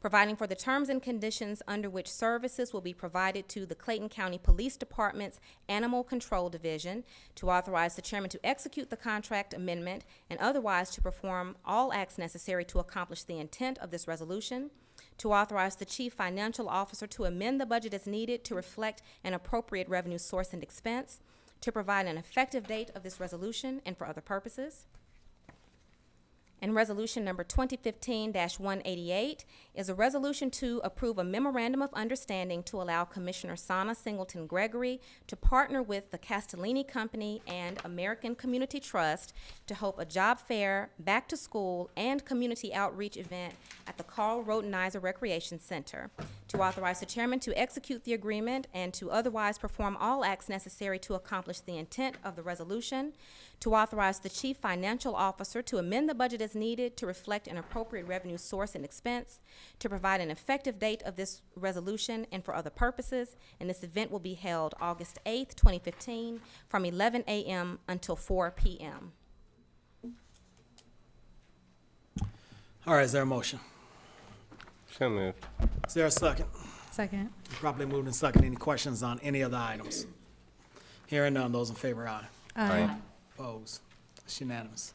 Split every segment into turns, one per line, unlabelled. providing for the terms and conditions under which services will be provided to the Clayton County Police Department's Animal Control Division, to authorize the chairman to execute the contract amendment and otherwise to perform all acts necessary to accomplish the intent of this resolution, to authorize the chief financial officer to amend the budget as needed to reflect an appropriate revenue source and expense, to provide an effective date of this resolution and for other purposes. And resolution number twenty fifteen one eighty-eight is a resolution to approve a memorandum of understanding to allow Commissioner Sana Singleton Gregory to partner with the Castellini Company and American Community Trust to hope a job fair, back to school, and community outreach event at the Carl Rodenizer Recreation Center. To authorize the chairman to execute the agreement and to otherwise perform all acts necessary to accomplish the intent of the resolution, to authorize the chief financial officer to amend the budget as needed to reflect an appropriate revenue source and expense, to provide an effective date of this resolution and for other purposes, and this event will be held August eighth, twenty fifteen, from eleven AM until four PM.
All right, is there a motion?
So moved.
Is there a second?
Second.
Properly moved and second. Any questions on any of the items? Hearing none, those in favor, aye.
Aye.
Opposed? It's unanimous.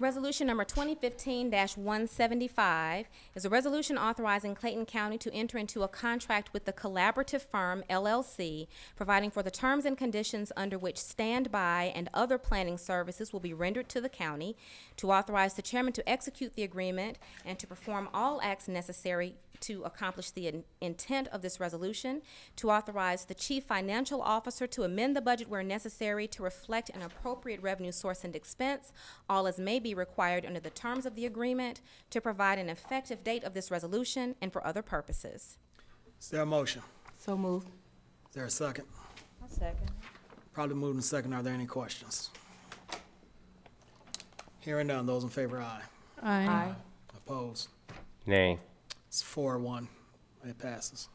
Resolution number twenty fifteen one seventy-five is a resolution authorizing Clayton County to enter into a contract with the collaborative firm LLC, providing for the terms and conditions under which standby and other planning services will be rendered to the county, to authorize the chairman to execute the agreement and to perform all acts necessary to accomplish the in- intent of this resolution, to authorize the chief financial officer to amend the budget where necessary to reflect an appropriate revenue source and expense, all as may be required under the terms of the agreement, to provide an effective date of this resolution and for other purposes.
Is there a motion?
So moved.
Is there a second?
Second.
Probably moved and second. Are there any questions? Hearing none, those in favor, aye.
Aye.
Opposed?
Nay.
It's four one. It passes.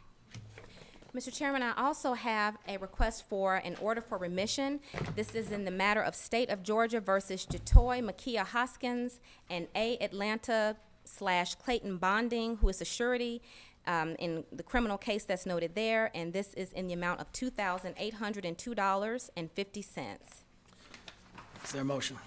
Mr. Chairman, I also have a request for an order for remission. This is in the matter of State of Georgia versus Jatoy Makia Hoskins and A Atlanta slash Clayton Bonding, who is a surety um, in the criminal case that's noted there, and this is in the amount of two thousand eight hundred and two dollars and fifty cents.
Is there a motion?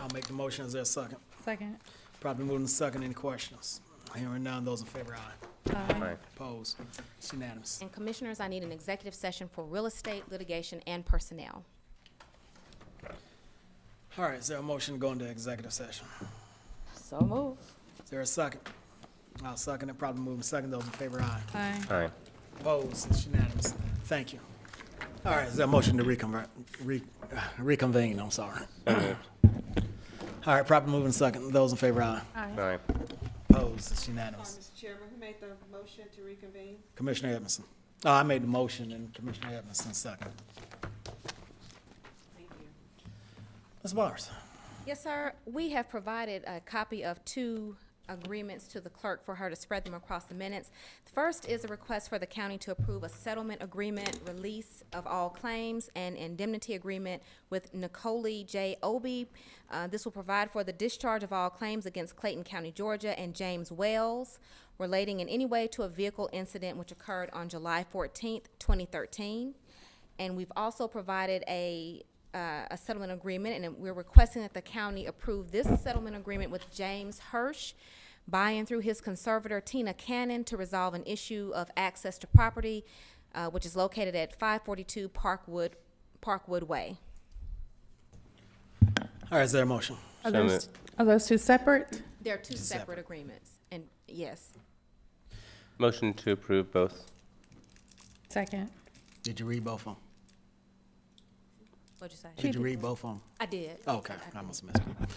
I'll make the motion. Is there a second?
Second.
Probably moved and second. Any questions? Hearing none, those in favor, aye.
Aye.
Opposed? It's unanimous.
And Commissioners, I need an executive session for real estate, litigation, and personnel.
All right, is there a motion to go into executive session?
So moved.
Is there a second? I'll second it, probably move in second, those in favor, aye.
Aye.
Aye.
Opposed, it's unanimous. Thank you. All right, is there a motion to reconvert, re, uh, reconvene, I'm sorry. All right, probably move in second, those in favor, aye.
Aye.
Opposed, it's unanimous.
Mr. Chairman, who made the motion to reconvene?
Commissioner Edmondson. Oh, I made the motion and Commissioner Edmondson second.
Thank you.
Ms. Bowers,
Yes, sir. We have provided a copy of two agreements to the clerk for her to spread them across the minutes. The First is a request for the county to approve a settlement agreement, release of all claims, and indemnity agreement with Nicole J. Obie. Uh, This will provide for the discharge of all claims against Clayton County, Georgia, and James Wells relating in any way to a vehicle incident which occurred on July fourteenth, twenty thirteen. And we've also provided a, uh, a settlement agreement, and we're requesting that the county approve this settlement agreement with James Hirsch, by and through his conservator Tina Cannon to resolve an issue of access to property, uh, which is located at five forty-two Parkwood, Parkwood Way.
all right, is there a motion?
So
Are those, are those two separate?
There are two
Separate.
separate agreements, and yes.
Motion to approve both.
Second.
Did you read both of them?
What'd you say?
Did you read both of them?
I did.
Okay, I must have missed it.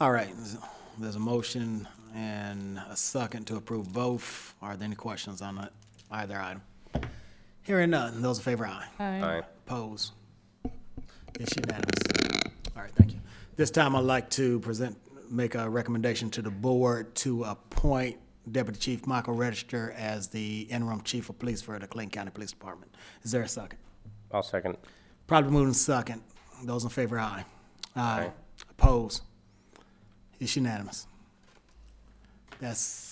All right, there's- there's a motion and a second to approve both. Are there any questions on that- either item? Hearing none, those in favor, aye.
Aye.
Pose. It's unanimous. All right, thank you. This time I'd like to present, make a recommendation to the board to appoint Deputy Chief Michael Register as the interim chief of police for the Clayton County Police Department. Is there a second?
I'll second.
Probably moving second. Those in favor, aye. Aye.
Aye.
Oppose? It's unanimous. That's